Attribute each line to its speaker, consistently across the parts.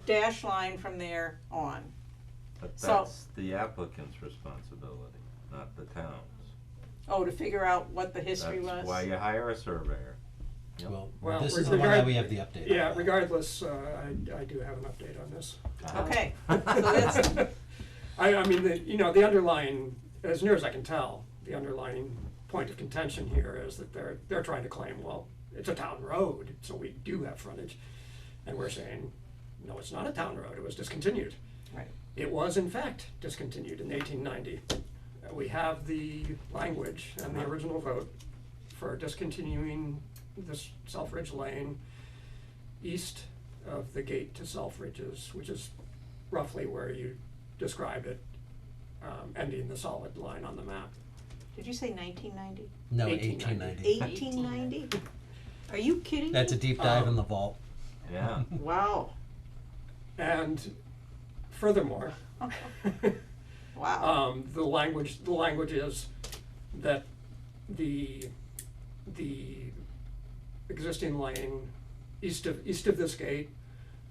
Speaker 1: dash line from there on.
Speaker 2: But
Speaker 1: So-
Speaker 2: that's the applicant's responsibility, not the town's.
Speaker 1: Oh, to figure out what the history was?
Speaker 2: That's why you hire a surveyor. Yep.
Speaker 3: Well,
Speaker 4: Well, this is the one
Speaker 3: regard-
Speaker 4: that we have the update. on.
Speaker 3: Yeah, regardless, uh, I, I do have an update on this.
Speaker 2: Uh-huh.
Speaker 1: Okay. So that's-
Speaker 3: I, I mean, the, you know, the underlying, as near as I can tell, the underlying point of contention here is that they're, they're trying to claim, well, it's a town road, so we do have frontage. And we're saying, no, it's not a town road, it was discontinued.
Speaker 1: Right.
Speaker 3: It was in fact discontinued in eighteen ninety. We have the language and the original vote for discontinuing this Selfridge Lane east of the gate to Selfridges, which is roughly where you described it, um, ending the solid line on the map.
Speaker 1: Did you say nineteen ninety?
Speaker 4: No,
Speaker 3: 1890.
Speaker 4: eighteen ninety.
Speaker 1: Eighteen ninety? Are you kidding me?
Speaker 4: That's a deep dive in the vault.
Speaker 2: Yeah,
Speaker 1: Wow,
Speaker 3: And furthermore,
Speaker 1: wow.
Speaker 3: um, the language, the language is that the, the existing lane east of, east of this gate,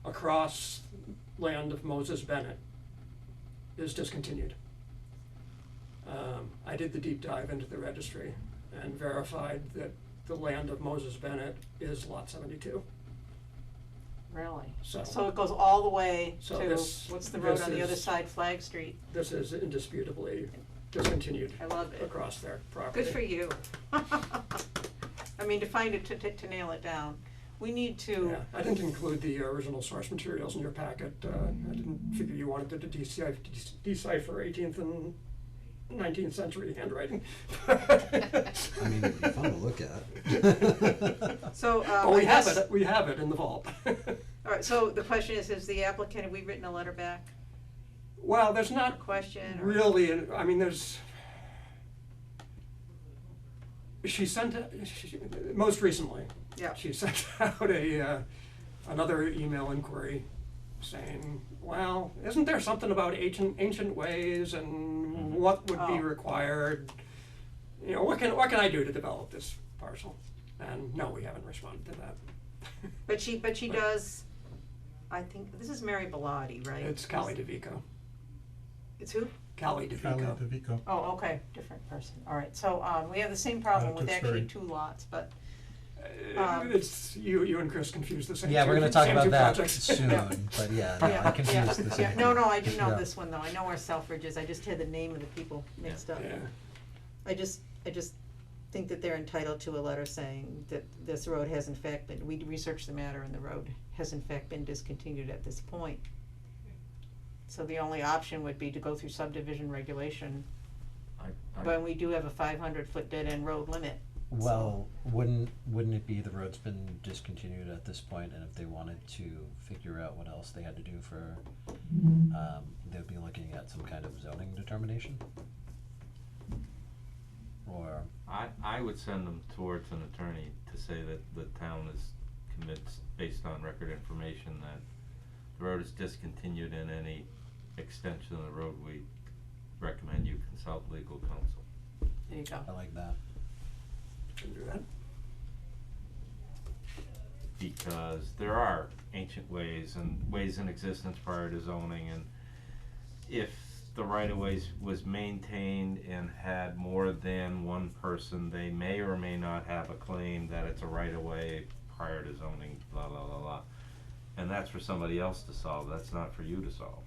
Speaker 3: across land of Moses Bennett, is discontinued. Um, I did the deep dive into the registry and verified that the land of Moses Bennett is lot seventy-two.
Speaker 1: Really?
Speaker 3: So-
Speaker 1: So it goes all the way to,
Speaker 3: So this-
Speaker 1: what's the road
Speaker 3: this
Speaker 1: on the other
Speaker 3: is-
Speaker 1: side, Flag Street?
Speaker 3: This is indisputably discontinued
Speaker 1: I love it.
Speaker 3: across their property.
Speaker 1: Good for you. I mean, to find it, to, to to nail it down. We need to,
Speaker 3: Yeah, I didn't include the original source materials in your packet, uh, I didn't figure you wanted to de- decipher, decipher eighteenth and nineteenth century handwriting.
Speaker 4: I mean, it'd be Oh. fun to look at.
Speaker 1: so,
Speaker 3: But
Speaker 1: um, I
Speaker 3: Oh, we have
Speaker 1: guess, all
Speaker 3: it, we have it in the vault.
Speaker 1: right, so the question is, is the applicant, have we written a letter back?
Speaker 3: Well, there's not
Speaker 1: Question or?
Speaker 3: really, an- I mean, there's. She sent, a- she- most recently,
Speaker 1: Yeah,
Speaker 3: she sent out a, uh, another email inquiry saying, well, isn't there something about ancient, ancient ways and what would
Speaker 1: Oh.
Speaker 3: be required? You know, what can, what can I do to develop this parcel? And no, we haven't responded to that.
Speaker 1: but she, but she does, I think, this is Mary Bellotti, right?
Speaker 3: It's Callie DeVico,
Speaker 1: It's who?
Speaker 3: Callie DeVico.
Speaker 5: DeVico.
Speaker 1: Oh, okay, different person, all right, so, um, we have the same problem with actually
Speaker 5: Tewksbury.
Speaker 1: two lots, but,
Speaker 3: Uh,
Speaker 1: Um,
Speaker 3: It's, you, you and Chris confused the same.
Speaker 4: Yeah,
Speaker 3: two-
Speaker 4: we're gonna talk
Speaker 3: same
Speaker 4: about
Speaker 3: two
Speaker 4: that
Speaker 3: projects.
Speaker 4: soon,
Speaker 3: Yeah.
Speaker 4: but yeah,
Speaker 1: yeah,
Speaker 4: no, I
Speaker 1: yeah,
Speaker 4: confused the
Speaker 1: yeah,
Speaker 4: same.
Speaker 1: no, no, I do know
Speaker 4: Yeah.
Speaker 1: this one though, I know where Selfridge is, I just had the name of the people mixed up.
Speaker 3: Yeah.
Speaker 1: I just, I just think that they're entitled to a letter saying that this road has in fact been, we researched the matter and the road has in fact been discontinued at this point. So the only option would be to go through subdivision regulation,
Speaker 2: I, I,
Speaker 1: when we do have a five hundred foot dead end road limit.
Speaker 4: Well, wouldn't, wouldn't it be the road's been discontinued at this point, and if they wanted to figure out what else they had to do for, um, they'd be looking at some kind of zoning determination? Or,
Speaker 2: I, I would send them towards an attorney to say that the town is commits, based on record information, that the road is discontinued and any extension of the road, we recommend you consult legal counsel.
Speaker 1: There you go.
Speaker 4: I like that.
Speaker 3: Can do that.
Speaker 2: because there are ancient ways and ways in existence prior to zoning and if the right of ways was maintained and had more than one person, they may or may not have a claim that it's a right of way prior to zoning, blah, blah, blah, blah. And that's for somebody else to solve, that's not for you to solve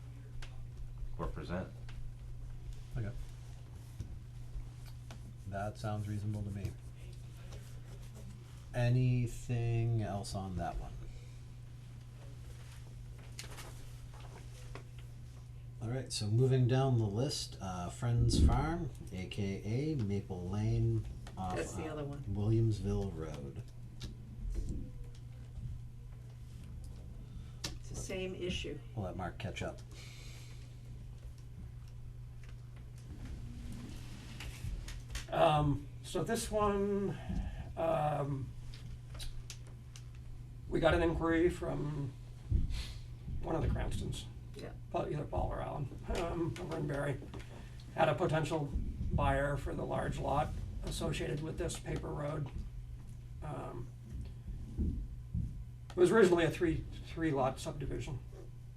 Speaker 2: or present.
Speaker 4: Okay. That sounds reasonable to me. Anything else on that one? Alright, so moving down the list, uh, Friends Farm, AKA Maple Lane off
Speaker 1: That's the
Speaker 4: uh,
Speaker 1: other one.
Speaker 4: Williamsville Road.
Speaker 1: It's the same issue.
Speaker 4: We'll let Mark catch up.
Speaker 3: Um, so this one, um, we got an inquiry from one of the Cranstons.
Speaker 1: Yeah.
Speaker 3: Pa- Either Paul or Alan, um, over in Barry, had a potential buyer for the large lot associated with this paper road. Um, It was originally a three, three lot subdivision,